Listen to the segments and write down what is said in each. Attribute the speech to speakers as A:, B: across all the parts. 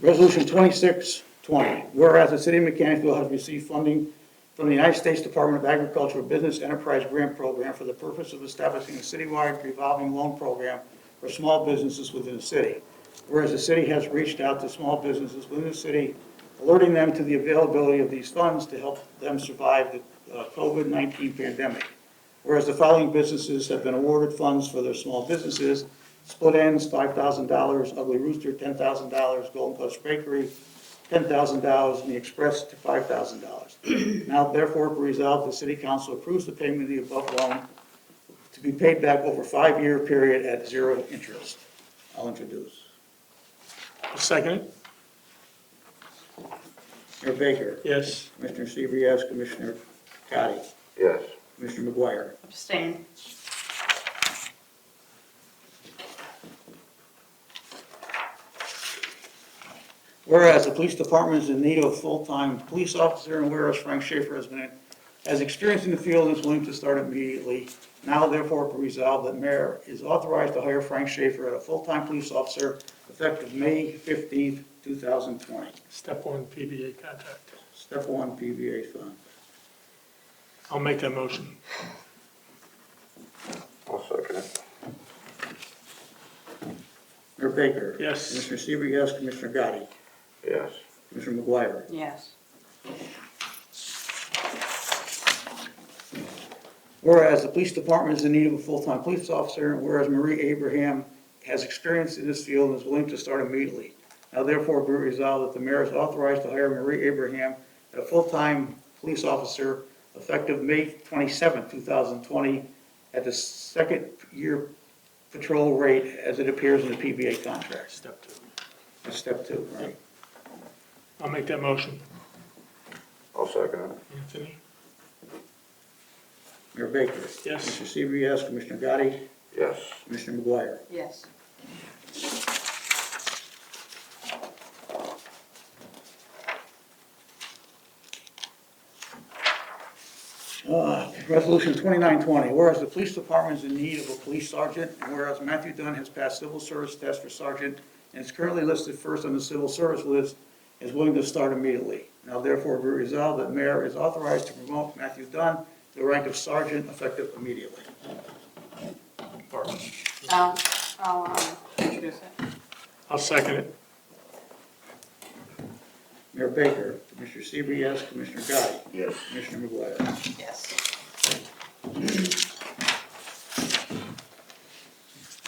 A: Resolution 2620, whereas the city of Mechanicsville has received funding from the United States Department of Agriculture Business Enterprise Grant Program for the purpose of establishing a citywide revolving loan program for small businesses within the city. Whereas the city has reached out to small businesses within the city, alerting them to the availability of these funds to help them survive the uh, COVID-19 pandemic. Whereas the following businesses have been awarded funds for their small businesses, Split Ends, five thousand dollars, Ugly Rooster, ten thousand dollars, Golden Touch Bakery, ten thousand dollars, and The Express to five thousand dollars. Now therefore be resolved, the city council approves the payment of the above loan to be paid back over a five-year period at zero interest. I'll introduce.
B: Second it?
A: Mayor Baker.
B: Yes.
A: Commissioner Seaver, yes. Commissioner Gotti.
C: yes,
A: Commissioner McGuire.
D: abstain,
A: Whereas the police department is in need of a full-time police officer, and whereas Frank Schaefer has been, has experience in the field and is willing to start immediately, now therefore be resolved that mayor is authorized to hire Frank Schaefer as a full-time police officer effective May fifteenth, two thousand twenty.
B: Step one PBA contract.
A: Step one, PVA fund.
B: I'll make that motion.
C: I'll second it,
A: Mayor Baker.
B: Yes.
A: Commissioner Seaver, yes. Commissioner Gotti.
C: yes,
A: Commissioner McGuire.
D: yes,
A: Whereas the police department is in need of a full-time police officer, and whereas Marie Abraham has experience in this field and is willing to start immediately. Now therefore be resolved that the mayor is authorized to hire Marie Abraham as a full-time police officer effective May 27, thousand twenty, at the second year patrol rate as it appears in the PBA contract.
B: Step two.
A: That's step two, right?
B: I'll make that motion.
C: I'll second it,
B: Anthony?
A: Mayor Baker.
B: Yes.
A: Mr. Seaver, yes. Commissioner Gotti.
C: yes,
A: Commissioner McGuire.
D: yes,
A: Uh, Resolution 2920, whereas the police department is in need of a police sergeant, and whereas Matthew Dunn has passed civil service test for sergeant and is currently listed first on the civil service list, is willing to start immediately. Now therefore be resolved that mayor is authorized to promote Matthew Dunn to the rank of sergeant effective immediately.
B: Barbara?
D: I'll, I'll um, introduce it,
B: I'll second it.
A: Mayor Baker, Commissioner Seaver, yes, Commissioner Gotti,
C: yes,
A: Commissioner McGuire.
D: yes,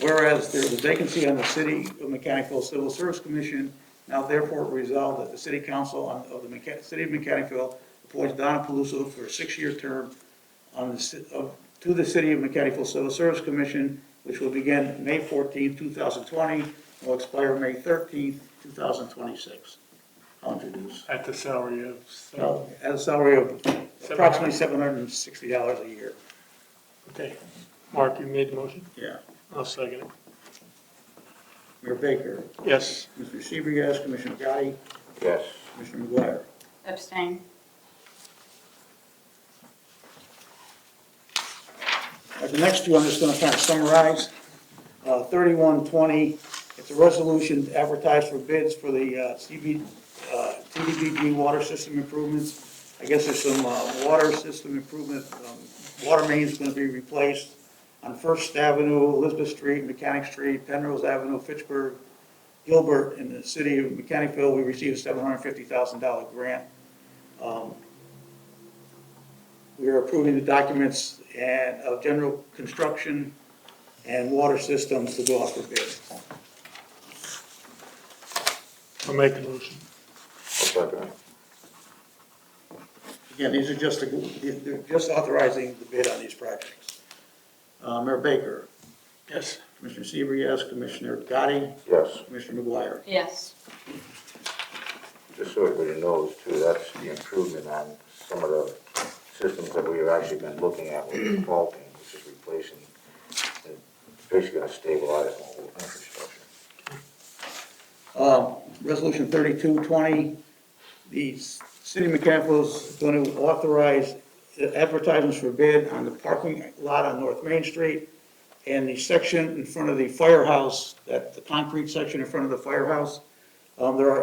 A: Whereas there is a vacancy on the City of Mechanicsville Civil Service Commission, now therefore resolved that the City Council on- of the Mecha- City of Mechanicsville appoints Donna Paluso for a six-year term on the, ci- of, to the City of Mechanicsville Civil Service Commission, which will begin May 14, 2020, and will expire May 13, 2026. I'll introduce.
B: At the salary of, so,
A: Now, At a salary of approximately $760 a year.
B: okay. Mark, you made the motion?
A: Yeah.
B: I'll second it.
A: Mayor Baker,
B: Yes.
A: Mr. Seaver, yes, Commissioner Gotti,
C: yes,
A: Commissioner McGuire.
D: abstain,
A: Uh, The next two, I'm just gonna kind of summarize. Uh, 3120, it's a resolution to advertise for bids for the uh, CB, uh, CDBG water system improvements. I guess there's some uh, water system improvement, um, water main's gonna be replaced on First Avenue, Elizabeth Street, Mechanic Street, Penrose Avenue, Fitchburg, Gilbert, in the city of Mechanicville. We received a $750,000 grant. We are approving the documents and of general construction and water systems to go out for bid.
B: I'll make the motion.
C: I'll second it,
A: Again, these are just, the- they're just authorizing the bid on these projects. Uh, Mayor Baker,
B: Yes.
A: Commissioner Seaver, yes, Commissioner Gotti,
C: yes.
A: Commissioner McGuire.
D: yes,
C: Just so everybody knows too, that's the improvement on some of the systems that we've actually been looking at with faulting, which is replacing, and basically gonna stabilize the whole infrastructure.
A: Um, Resolution 3220, the city of Mechanicsville is going to authorize advertisements for bid on the parking lot on North Main Street and the section in front of the firehouse, that, the concrete section in front of the firehouse. Um, There are